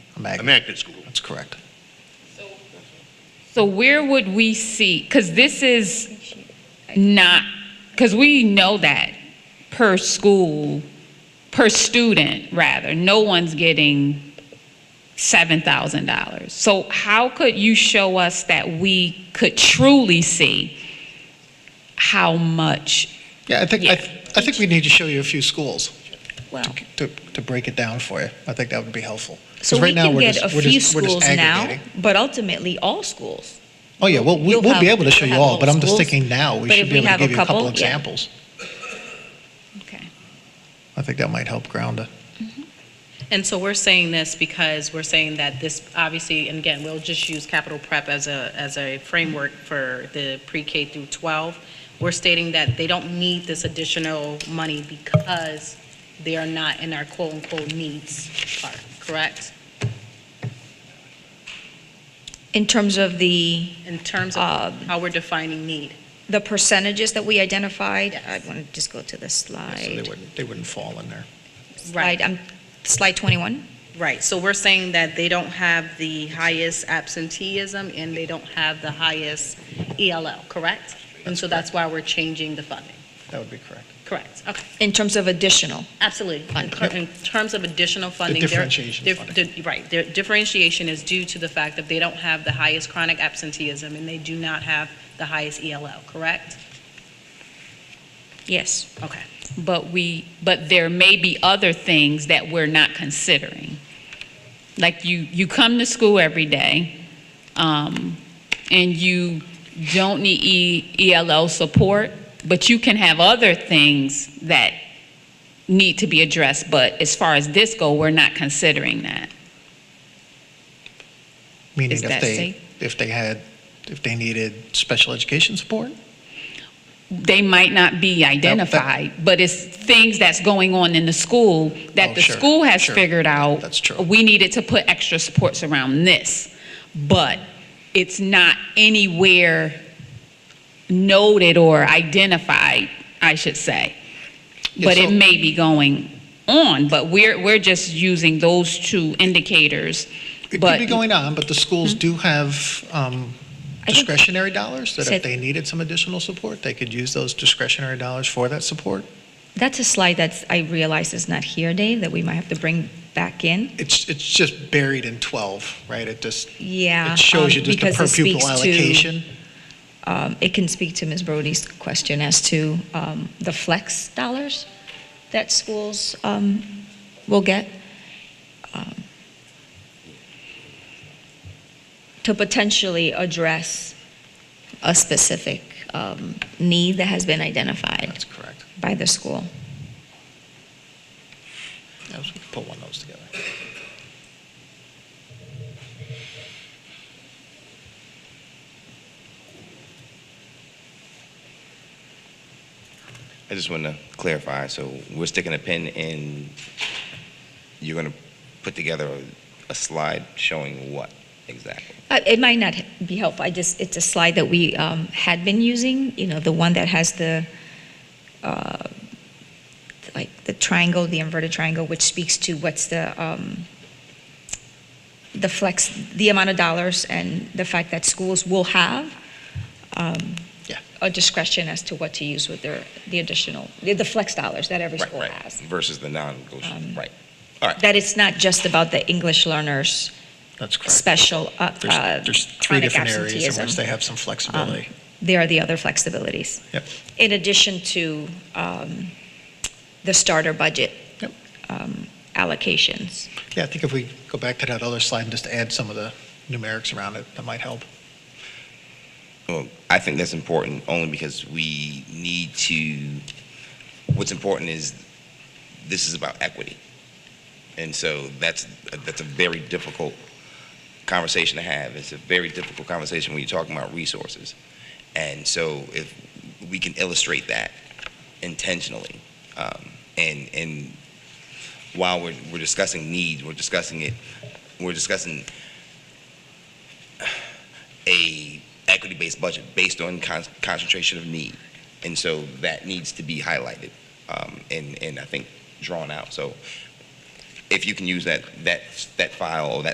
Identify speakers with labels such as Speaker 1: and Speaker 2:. Speaker 1: Magnet,
Speaker 2: Magnet School.
Speaker 1: that's correct.
Speaker 3: So where would we see, because this is not, because we know that per school, per student, rather, no one's getting $7,000. So how could you show us that we could truly see how much?
Speaker 1: Yeah, I think, I,
Speaker 3: Yeah.
Speaker 1: th- I think we need to show you a few schools
Speaker 4: Well,
Speaker 1: to, to, to break it down for you. I think that would be helpful. 'Cause
Speaker 4: so
Speaker 1: right
Speaker 4: we
Speaker 1: now
Speaker 4: can
Speaker 1: we're
Speaker 4: get
Speaker 1: just-
Speaker 4: a
Speaker 1: we're
Speaker 4: few
Speaker 1: just- we're just
Speaker 4: schools now,
Speaker 1: aggregating.
Speaker 4: but ultimately all schools.
Speaker 1: Oh, yeah, well, we-
Speaker 4: You'll
Speaker 1: we'll be
Speaker 4: have-
Speaker 1: able to show
Speaker 4: you'll
Speaker 1: you
Speaker 4: have
Speaker 1: all, but I'm just
Speaker 4: schools,
Speaker 1: thinking now, we
Speaker 4: but
Speaker 1: should
Speaker 4: if
Speaker 1: be
Speaker 4: we
Speaker 1: able to
Speaker 4: have a
Speaker 1: give you a couple
Speaker 4: couple, yeah.
Speaker 1: examples.
Speaker 3: Okay.
Speaker 1: I think that might help ground it.
Speaker 5: And so we're saying this because we're saying that this, obviously, and again, we'll just use capital prep as a, as a framework for the pre-K through 12. We're stating that they don't need this additional money because they are not in our quote-unquote needs part, correct?
Speaker 4: In terms of the,
Speaker 5: In terms of
Speaker 4: Um,
Speaker 5: how we're defining need.
Speaker 4: the percentages that we identified, I
Speaker 5: Yes.
Speaker 4: want to just go to the
Speaker 1: So they
Speaker 4: slide.
Speaker 1: wouldn't, they wouldn't fall in there.
Speaker 4: Slide, um, slide 21.
Speaker 5: Right, so we're saying that they don't have the highest absenteeism and they don't have the highest ELL, correct? And so that's why we're changing the funding,
Speaker 1: That would be correct.
Speaker 5: correct? Okay.
Speaker 4: In terms of additional,
Speaker 5: Absolutely. In
Speaker 1: Fund,
Speaker 5: ter-
Speaker 1: yep.
Speaker 5: In terms of additional funding.
Speaker 1: The
Speaker 5: they're-
Speaker 1: differentiation
Speaker 5: they're-
Speaker 1: funding.
Speaker 5: the- Right, their differentiation is due to the fact that they don't have the highest chronic absenteeism and they do not have the highest ELL, correct?
Speaker 4: yes.
Speaker 5: Okay.
Speaker 3: But we, but there may be other things that we're not considering. Like you, you come to school every day, um, and you don't need E, ELL support, but you can have other things that need to be addressed, but as far as this go, we're not considering that.
Speaker 1: Meaning
Speaker 3: Is
Speaker 1: if
Speaker 3: that
Speaker 1: they,
Speaker 3: safe?
Speaker 1: if they had, if they needed special education support,
Speaker 3: They might not be identified, but it's things that's going on in the school
Speaker 1: Oh,
Speaker 3: that the
Speaker 1: sure,
Speaker 3: school has
Speaker 1: sure.
Speaker 3: figured out.
Speaker 1: That's true.
Speaker 3: We needed to put extra supports around this, but it's not anywhere noted or identified, I should say.
Speaker 1: Yeah,
Speaker 3: But
Speaker 1: so-
Speaker 3: it may be going on, but we're, we're just using those two indicators.
Speaker 1: It could
Speaker 3: But
Speaker 1: be going on, but the schools do have um,
Speaker 4: Hmm? think-
Speaker 1: discretionary dollars, that if
Speaker 4: Said-
Speaker 1: they needed some additional support, they could use those discretionary dollars for that support.
Speaker 4: That's a slide that's, I realize is not here, Dave, that we might have to bring back in.
Speaker 1: It's, it's just buried in 12, right? It just,
Speaker 4: Yeah.
Speaker 1: it shows
Speaker 4: um,
Speaker 1: you just the
Speaker 4: because
Speaker 1: per
Speaker 4: it
Speaker 1: pupil
Speaker 4: speaks to-
Speaker 1: allocation.
Speaker 4: um, It can speak to Ms. Brody's question as to um, the flex dollars that schools um, will get. um, To potentially address a specific um, need that has been identified
Speaker 1: That's correct.
Speaker 4: by the school.
Speaker 1: Yeah, so we could Put one of those together.
Speaker 6: I just want to clarify, so we're sticking a pin in, you're going to put together a- a slide showing what exactly?
Speaker 4: Uh, It might not be helpful, I just, it's a slide that we um, had been using, you know, the one that has the, uh, like, the triangle, the inverted triangle, which speaks to what's the, um, the flex, the amount of dollars and the fact that schools will have um,
Speaker 1: Yeah.
Speaker 4: a discretion as to what to use with their, the additional, the the flex dollars that every
Speaker 6: Right,
Speaker 4: school
Speaker 6: right.
Speaker 4: has.
Speaker 6: Versus the
Speaker 4: Um,
Speaker 6: non-negotiable, right.
Speaker 4: That it's not just about the English learners'
Speaker 1: That's correct.
Speaker 4: special uh, uh,
Speaker 1: There's, there's three
Speaker 4: chronic
Speaker 1: different areas in
Speaker 4: absenteeism Um,
Speaker 1: which they have some flexibility.
Speaker 4: there are the other flexibilities.
Speaker 1: Yep.
Speaker 4: In addition to um, the starter budget
Speaker 1: Yep.
Speaker 4: um, allocations.
Speaker 1: Yeah, I think if we go back to that other slide and just add some of the numerics around it, that might help.
Speaker 6: Well, I think that's important only because we need to, what's important is this is about equity. And so that's, that's a very difficult conversation to have. It's a very difficult conversation when you're talking about resources. And so if we can illustrate that intentionally, um, and, and while we're, we're discussing needs, we're discussing it, we're discussing a equity-based budget based on con- concentration of need. And so that needs to be highlighted um, and, and I think drawn out. So if you can use that, that, that file or that